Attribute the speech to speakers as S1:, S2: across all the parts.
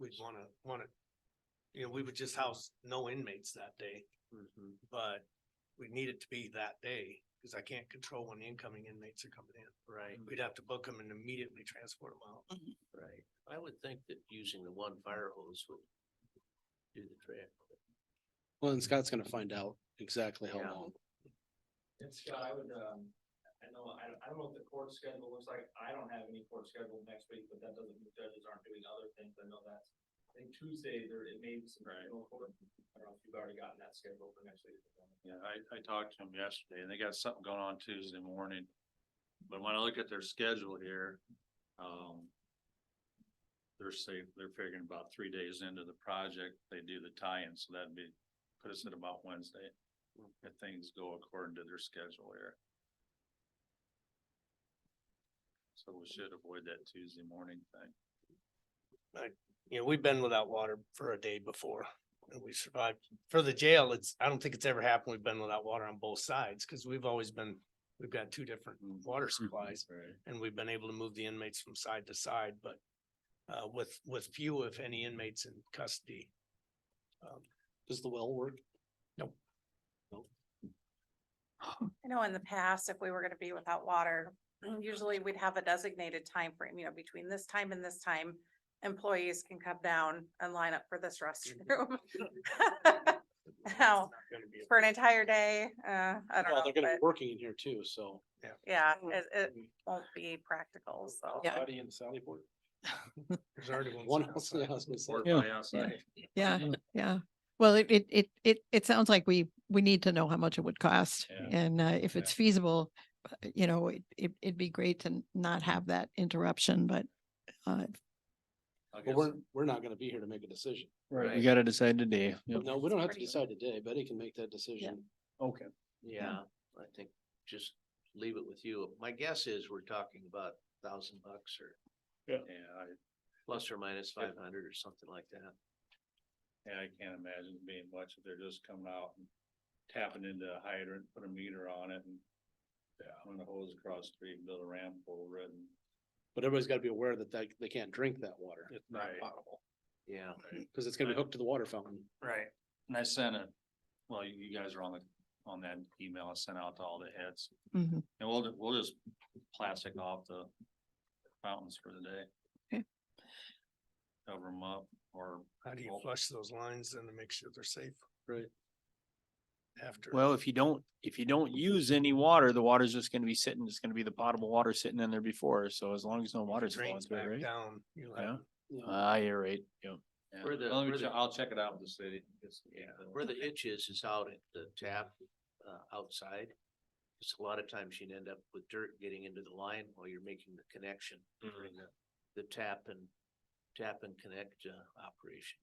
S1: we'd wanna, wanna, you know, we would just house no inmates that day, Mm-hmm. but we need it to be that day, cause I can't control when the incoming inmates are coming in.
S2: Right,
S1: We'd have to book them and immediately transport them out.
S2: right. I would think that using the one fire hose would do the trick.
S3: Well, and Scott's gonna find out exactly how
S2: Yeah.
S3: long.
S4: And Scott, I would, um, I know, I, I don't know what the court schedule looks like. I don't have any court scheduled next week, but that doesn't mean judges aren't doing other things. I know that's. I think Tuesday, there, it may be some, I don't know if you've already gotten that scheduled for next week.
S5: Yeah, I, I talked to them yesterday and they got something going on Tuesday morning. But when I look at their schedule here, um, they're safe, they're figuring about three days into the project, they do the tie-in, so that'd be, put us at about Wednesday. If things go according to their schedule here. So we should avoid that Tuesday morning thing.
S1: You know, we've been without water for a day before and we survived. For the jail, it's, I don't think it's ever happened. We've been without water on both sides, cause we've always been, we've got two different water
S3: Mm-hmm.
S1: supplies.
S5: Right.
S1: and we've been able to move the inmates from side to side, but uh, with, with few, if any, inmates in custody. Um,
S3: Does the well work?
S6: I know in the past, if we were gonna be without water, usually we'd have a designated time frame. you know, between this time and this time. Employees can come down and line up for this restroom.
S3: Mm-hmm.
S1: it's
S6: Now,
S1: not gonna be a-
S6: For an entire day, uh, I
S3: Well,
S6: don't
S3: they're gonna Mm-hmm.
S6: know,
S3: be
S6: but
S3: working in here too, so.
S6: yeah, it, it won't be practical, so.
S7: Yeah.
S3: Buddy and Sally board.
S1: There's already one.
S3: One
S1: sitting
S3: house,
S1: outside.
S3: I was gonna say.
S5: Or by outside.
S7: Yeah,
S5: Mm.
S7: yeah. Well, it, it, it, it, it sounds like we, we need to know how much it would cost
S5: Yeah.
S7: and uh, if
S5: Yeah.
S7: it's feasible, uh, you know, it, it- it'd be great to n- not have that interruption, but uh,
S5: I
S3: But
S5: guess-
S3: we're, we're not gonna be here to make a decision.
S8: Right,
S2: Right.
S8: we gotta decide today. Yep.
S3: No, we don't have to
S6: Pretty-
S3: decide today. Betty can make that decision.
S8: Okay.
S2: Yeah, I think just leave it with you. My guess is we're talking about thousand bucks or
S5: Yeah, I,
S2: plus or minus five hundred or something like that.
S5: Yeah, I can't imagine it being much if they're just coming out and tapping into a hydrant, put a meter on it and. Yeah. Run a hose across the street and build a ramp over it and.
S3: But everybody's gotta be aware that they, they can't drink that water
S5: It's not
S3: potable,
S2: Yeah.
S3: cause it's gonna be hooked to the water fountain.
S1: Right.
S5: And I sent a, well, you, you guys are on the, on that email I sent out to all the heads.
S7: mhm.
S5: And we'll, ju- we'll just plastic off the fountains for the day.
S7: Okay.
S5: Cover them up or
S1: How do you flush those lines and to make sure they're safe?
S3: Right.
S1: After.
S8: Well, if you don't, if you don't use any water, the water's just gonna be sitting, it's gonna be the potable water sitting in there before, so as long as no water's flowing
S1: Drains
S8: through,
S1: back
S8: it, right?
S1: down, you'll
S8: Yeah.
S1: have,
S8: Ah, you're right, yeah.
S5: Yeah,
S2: Where the-
S5: I'll,
S2: where
S5: reach
S2: the-
S5: out- I'll check it out with the city. uh, It's-
S2: Yeah, where the itch is, is out at the tap, uh, outside. Cause a lot of times you'd end up with dirt getting into the line while you're making the connection during the, the tap and, tap and connect, uh, operation.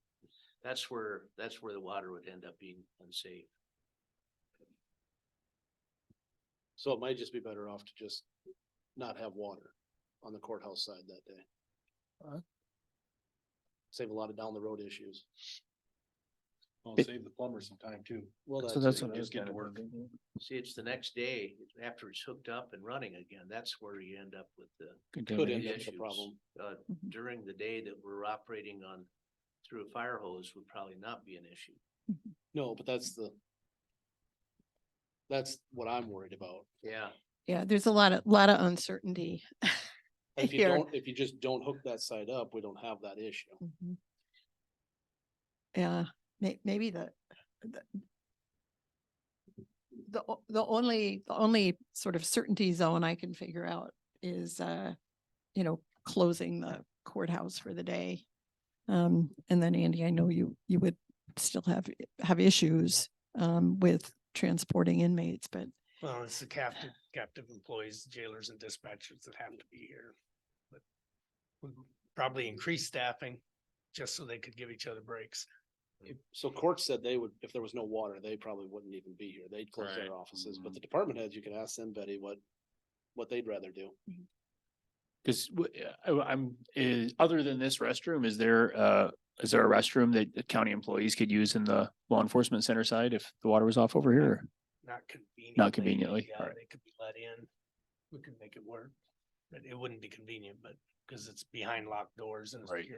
S2: That's where, that's where the water would end up being unsafe.
S3: So it might just be better off to just not have water on the courthouse side that day.
S8: Alright.
S3: Save a lot of down the road issues.
S5: Well,
S8: It-
S5: save the plumber some time too.
S3: Well,
S8: So that's
S3: it.
S8: what I was
S5: just get
S8: kind
S5: to
S8: of
S5: work.
S8: thinking.
S2: See, it's the next day, after it's hooked up and running again, that's where you end up with the
S3: Could
S8: Contaminate.
S3: end up with a
S2: issues.
S3: problem.
S2: uh,
S7: Mhm.
S2: during the day that we're operating on through a fire hose would probably not be an issue.
S3: No, but that's the. That's what I'm worried about.
S2: Yeah.
S7: yeah, there's a lot of, lot
S5: Mm.
S7: of uncertainty.
S3: If you
S7: Here.
S3: don't, if you just don't hook that side up, we don't have that issue.
S7: Mhm. Yeah, may- maybe the, the the, o- the only, the only sort of certainty zone I can figure out is, uh, you know, closing the courthouse for the day. Um, and then Andy, I know you, you would still have, i- have issues, um, with transporting inmates, but
S1: well, it's the captive, captive employees, jailers and dispatchers that have to be here. But we Probably increase staffing just so they could give each other breaks.
S3: If- So court said they would, if there was no water, they probably wouldn't even be here. They'd close
S5: Right.
S3: their offices, but
S1: Mm-hmm.
S5: Mhm.
S3: the department heads, you could ask them, Betty, what. What they'd rather do.
S8: Cause w- I, am is, other than this restroom, is there, uh, is there a restroom that the county employees could use in the law enforcement center side if the water was off over here?
S1: Not convenient.
S8: conveniently,
S1: Yeah,
S8: alright.
S1: they could be let in. We could make it work. But it wouldn't be convenient, but because it's behind locked doors and it's
S8: Right.